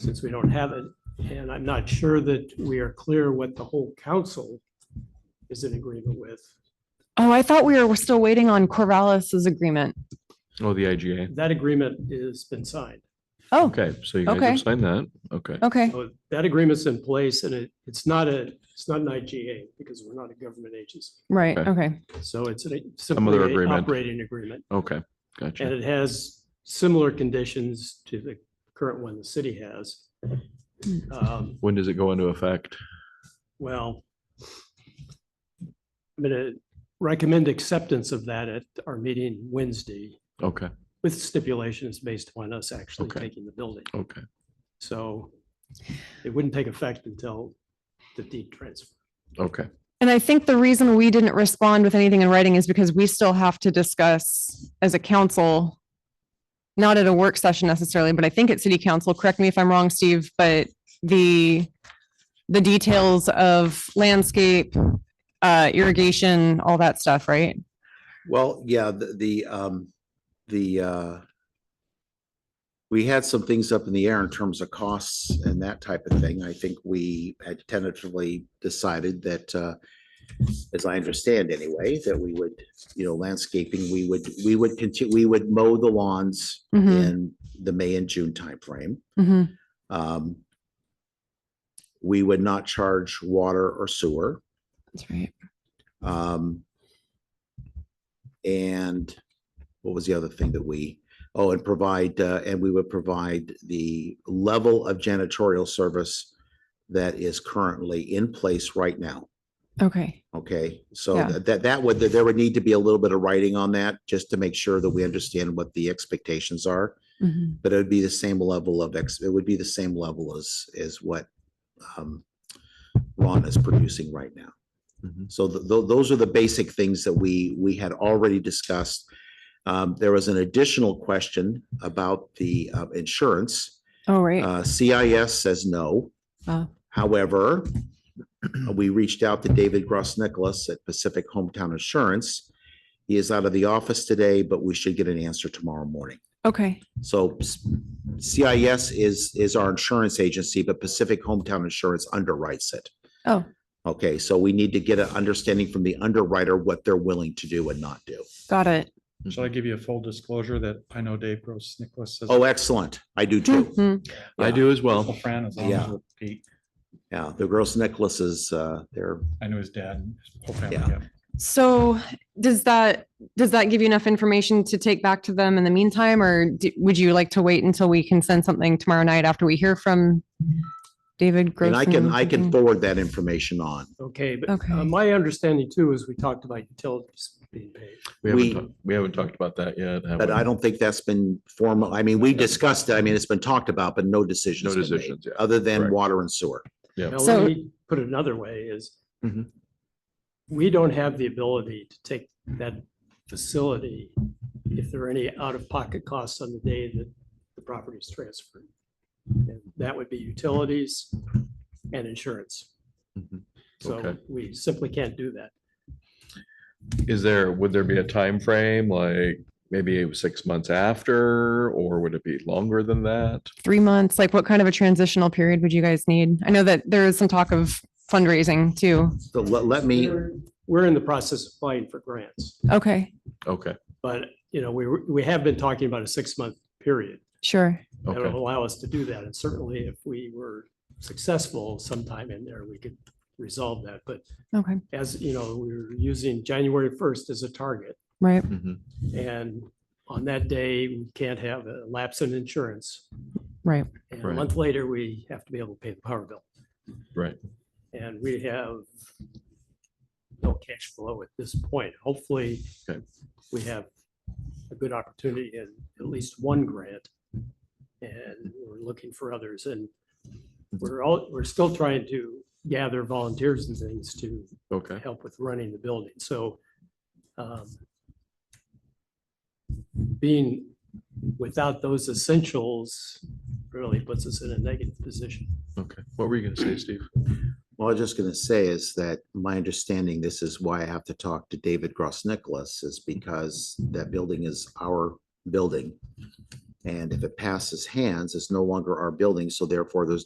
since we don't have it. And I'm not sure that we are clear what the whole council is in agreement with. Oh, I thought we were still waiting on Corvallis's agreement. Oh, the IGA. That agreement has been signed. Oh, Okay, so you guys Okay. have signed that. Okay. okay. So That agreement's in place and it, it's not a, it's not an IGA because we're not a government agency. Right. Okay. Okay. So it's an- other simply an agreement. operating agreement. Okay. And Gotcha. it has similar conditions to the current one the city has. Um, When does it go into effect? Well, I'm going to recommend acceptance of that at our meeting Wednesday Okay. with stipulations based upon us actually Okay. taking the building. Okay. So it wouldn't take effect until the deed transfer. Okay. And I think the reason we didn't respond with anything in writing is because we still have to discuss as a council, not at a work session necessarily, but I think at city council, correct me if I'm wrong, Steve, but the, the details of landscape, uh, irrigation, all that stuff, right? Well, yeah, the, the, um, the, uh, we had some things up in the air in terms of costs and that type of thing. I think we had tentatively decided that, uh, as I understand anyway, that we would, you know, landscaping, we would, we would continue, we would mow the lawns hmm in the May and June timeframe. hmm Um, we would not charge water or sewer. That's right. Um, and what was the other thing that we, oh, and provide, uh, and we would provide the level of janitorial service that is currently in place right now. Okay. Okay, so Yeah. tha- that, that would, there would need to be a little bit of writing on that just to make sure that we understand what the expectations are. Mhm. But it would be the same level of, ex. it would be the same level as, as what, um, Ron is producing right now. Mhm. So th- tho- those are the basic things that we, we had already discussed. Um, there was an additional question about the, uh, insurance. Oh, right. Uh, CIS says no. Oh. However, we reached out to David Gross Nicholas at Pacific Hometown Insurance. He is out of the office today, but we should get an answer tomorrow morning. Okay. So s- CIS is, is our insurance agency, but Pacific Hometown Insurance underwrites it. Oh. Okay, so we need to get an understanding from the underwriter what they're willing to do and not do. Got it. Shall I give you a full disclosure that I know Dave Gross Nicholas says? Oh, excellent. I do too. Mhm. I Yeah. do as Uncle well. Fran as long as Yeah. we're Pete. Yeah, the Gross Nicholas's, uh, they're, I know his dad and his whole family. Yeah. yeah. So does that, does that give you enough information to take back to them in the meantime? Or d- would you like to wait until we can send something tomorrow night after we hear from David and Gross? mm-hmm. I can, I can forward that information on. Okay, but uh, Okay. my understanding too is we talked about utilities being paid. We haven't, We- talked- we haven't talked about that yet. have But we? I don't think that's been formal. I mean, we discussed it. I mean, it's been talked about, but no No decisions. been made, decisions. Yeah. Other than Correct. water and sewer. Yep. Now, So- let me put it another way is Mhm. we don't have the ability to take that facility if there are any out-of-pocket costs on the day that the property is transferred. And That would be utilities and insurance. Mhm. So Okay. we simply can't do that. Is there, would there be a time frame like maybe it was six months after, or would it be longer than that? Three months, like what kind of a transitional period would you guys need? I know that there is some talk of fundraising too. So let, let me, We're- We're in the process of applying for grants, Okay, Okay. but, you know, we, were- we have been talking about a six-month period. sure. that would Okay. allow us to do that. And certainly if we were successful sometime in there, we could resolve that. But Okay, as, you know, we were using January first as a target. right. Mhm. And on that day, we can't have a lapse in insurance. Right. And a Right. month later, we have to be able to pay the power bill. Right. And we have no cash flow at this point. Hopefully, Okay. we have a good opportunity in at least one grant. And we're looking for others and we're all, we're still trying to gather volunteers and things to Okay. help with running the building, so. um, Being without those essentials really puts us in a negative position. Okay. What were you going to say, Steve? well, I was just gonna say is that my understanding, this is why I have to talk to David Gross Nicholas is because that building is our building. And if it passes hands, it's no longer our building, so therefore there's